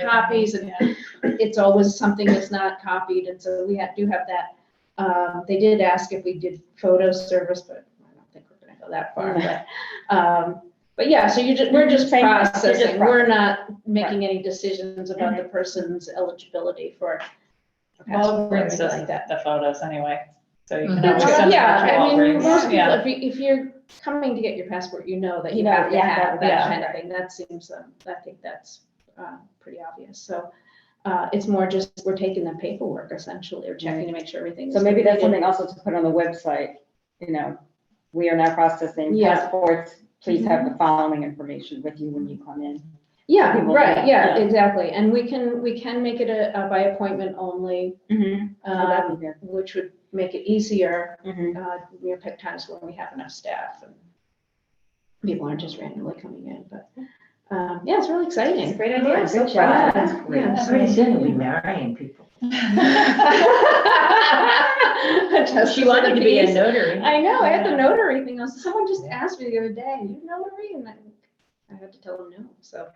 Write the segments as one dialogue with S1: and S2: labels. S1: copies and it's always something that's not copied. And so we have, do have that. Um, they did ask if we did photo service, but I don't think we're gonna go that far, but, um, but yeah, so you're just, we're just
S2: Same, you're just
S1: processing. We're
S2: processing. Mm-hmm.
S1: not making any decisions about the person's eligibility for.
S2: Well,
S1: passport or
S2: brings
S1: anything
S2: us
S1: like that.
S2: the photos anyway, so you
S3: Mhm.
S2: can
S3: Yeah,
S2: always
S3: well,
S2: send them
S1: Yeah,
S2: to
S1: I mean, most
S2: Walgreens,
S1: people,
S2: yeah.
S1: if you, if you're coming to get your passport, you know that
S2: You
S1: you
S2: know,
S1: have to
S2: yeah,
S1: have
S2: yeah.
S1: that kind of thing. That seems, um, I think that's, uh, pretty obvious, so. Uh, it's more just, we're taking the paperwork essentially, or checking to make sure everything's.
S3: So maybe that's
S1: completed.
S3: something also to put on the website, you know, we are now processing
S1: Yeah.
S3: passports. Please have the following information with you when you come in.
S1: Yeah,
S3: people
S1: right,
S3: do,
S1: yeah,
S3: yeah.
S1: exactly, and we can, we can make it a, a by appointment only,
S3: Oh, that'd
S1: um,
S3: be good.
S1: which would make it easier.
S3: Mhm.
S1: Uh, we have picked times when we have enough staff and people aren't just randomly coming in, but, um, yeah, it's really exciting.
S3: great
S4: Yeah,
S3: idea.
S4: good
S3: Good
S4: job.
S3: job.
S4: That's
S1: Yeah,
S4: great.
S1: yeah,
S4: Pretty
S1: so-
S4: soon you'll be marrying people.
S1: Just
S2: She wanted to be a
S1: piece.
S2: notary.
S1: I know, I had the notary thing, I was- someone just asked me the other day, you notary, and I, I had to tell them no, so.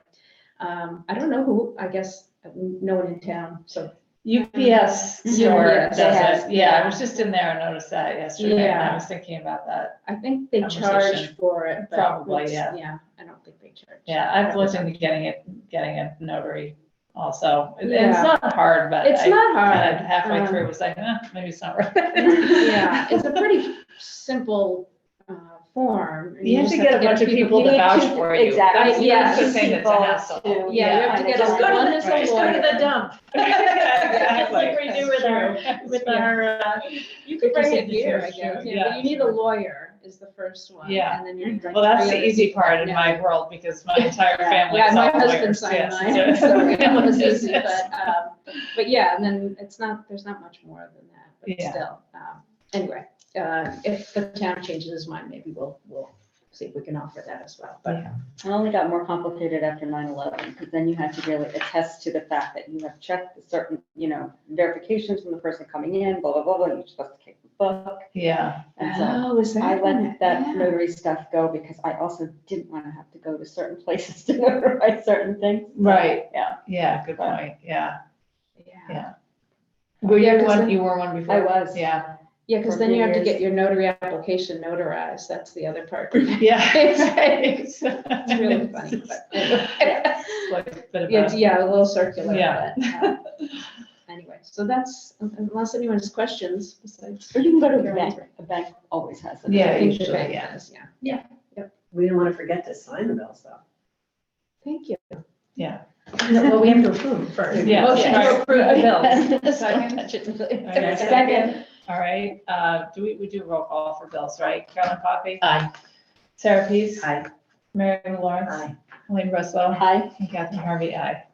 S1: Um, I don't know who, I guess, no one in town, so.
S2: UPS store
S1: UPS
S2: does
S1: has-
S2: it, yeah, I was just in there and noticed that yesterday, and I was thinking about that.
S1: I think they
S2: Conversation.
S1: charge for it, but.
S2: Probably,
S1: it's-
S2: yeah.
S1: Yeah, I don't think they charge.
S2: Yeah, I've looked into getting it, getting a notary also, and it's
S1: Yeah.
S2: not hard, but
S1: It's
S2: I
S1: not
S2: kind
S1: hard.
S2: of halfway
S1: um,
S2: through was like, eh, maybe it's not worth it.
S1: Yeah, it's a pretty simple, uh, form. and
S2: You have
S1: just
S2: to get a bunch of people to
S1: you need
S2: vouch
S1: two-
S2: for you.
S3: Exactly.
S2: That's-
S1: Yeah,
S2: that's the
S1: two
S2: thing that's a
S3: people
S2: hassle.
S3: to-
S1: Yeah, you have to
S3: Yeah,
S1: get
S3: just
S1: a
S3: go to
S1: one
S3: the-
S1: is a
S3: just
S1: lawyer.
S4: dump.
S2: That's
S4: like we do with our-
S2: with
S4: our, uh,
S1: You could
S2: could bring
S1: bring it
S2: it
S1: here, I
S2: here,
S1: guess,
S2: sure,
S1: yeah, but
S2: yeah.
S1: you need a lawyer is the first one.
S2: Yeah.
S1: And then you need like.
S2: Well, that's
S1: three
S2: the
S1: others.
S2: easy part in
S1: Yeah.
S2: my world because my entire family
S1: Yeah,
S2: is all
S1: my husband
S2: lawyers.
S1: signed
S2: yes,
S1: mine, so it was
S2: yes,
S1: easy,
S2: yes.
S1: but, um, but yeah, and then it's not, there's not much more than that,
S2: Yeah.
S1: but still. um, Anyway, uh, if the town changes its mind, maybe we'll, we'll see if we can offer that as well, but.
S3: It only got more complicated after 9/11, because then you had to really attest to the fact that you have checked the certain, you know, verifications from the person coming in, blah, blah, blah, blah, you're supposed to keep the book.
S2: Yeah,
S3: And so
S1: is
S3: I let Oh, that
S1: Oh, Yeah.
S3: notary stuff go because I also didn't want to have to go to certain places to notarize certain things.
S2: right,
S3: Yeah,
S2: yeah, good point, yeah.
S1: Yeah.
S2: Were
S1: Yeah,
S2: you
S1: 'cause
S2: one,
S1: then-
S2: you were one before?
S3: I was.
S2: Yeah,
S1: Yeah, because
S3: For
S1: then
S3: three
S1: you have to
S3: years.
S1: get your notary application notarized, that's the other part. It's
S2: yeah.
S1: It's-
S2: It's
S1: really funny, but. anyway.
S2: like a bit of
S1: Yeah,
S2: a-
S1: it's- yeah, a little circular,
S2: Yeah.
S1: but, um, anyway, so that's, unless anyone has questions besides.
S3: Or you can go to
S1: your
S3: a bank.
S1: answer.
S3: A bank always has it.
S2: Yeah,
S1: I think the
S2: usually,
S1: bank
S2: yeah.
S1: does, Yeah,
S4: We don't want to forget to sign the bills though.
S1: thank you.
S2: Yeah.
S4: Well, we have to approve first. Oh,
S2: Yeah.
S4: Motion to
S2: Right.
S4: approve the bills.
S2: Okay.
S3: Second.
S2: All right, uh, do we, we do roll call for bills, right? Carolyn Coffey,
S4: Aye.
S2: Sarah Peace,
S4: Aye.
S2: Mary Lou Lawrence,
S4: Aye.
S2: Elaine Russell,
S3: Hi.
S2: and Catherine Harvey, aye.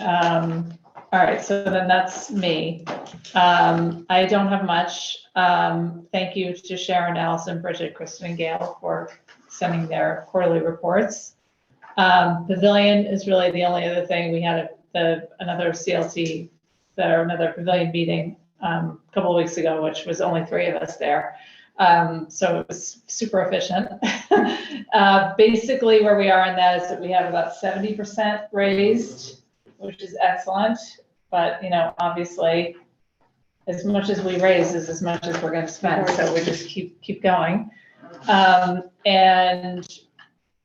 S2: Um, all right, so then that's me. Um, I don't have much. Um, thank you to Sharon, Allison, Bridget, Kristen, and Gail for sending their quarterly reports. Um, pavilion is really the only other thing. We had a, the, another CLT, there, another pavilion meeting, um, a couple of weeks ago, which was only three of us there. Um, so it was super efficient. Uh, basically where we are in that is that we have about seventy percent raised, which is excellent. But, you know, obviously, as much as we raise is as much as we're gonna spend, so we just keep, keep going. Um, and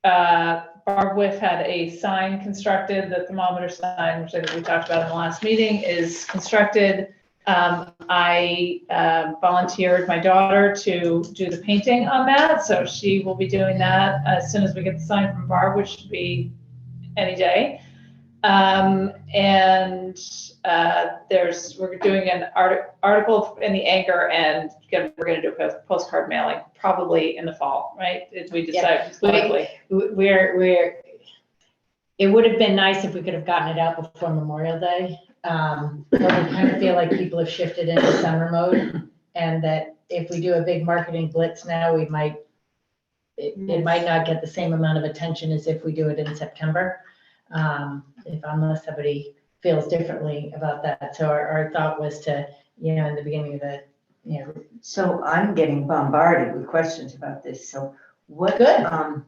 S2: uh, Barb Whiff had a sign constructed, the thermometer sign, which I think we talked about in the last meeting, is constructed. Um, I uh, volunteered my daughter to do the painting on that, so she will be doing that as soon as we get the sign from Barb, which should be any day. Um, and uh, there's, we're doing an art- article in the Anchor and gonna- we're gonna do a post- postcard mailing, probably in the fall, right? If we decide politically.
S5: W- We're, we're, it would have been nice if we could have gotten it out before Memorial Day. Um, But we kind of feel like people have shifted into summer mode and that if we do a big marketing blitz now, we might, it, it might not get the same amount of attention as if we do it in September. Um, If, unless somebody feels differently about that. So our, our thought was to, you know, in the beginning of the, you know,
S4: So I'm getting bombarded with questions about this, so what?
S5: Good.
S4: Um,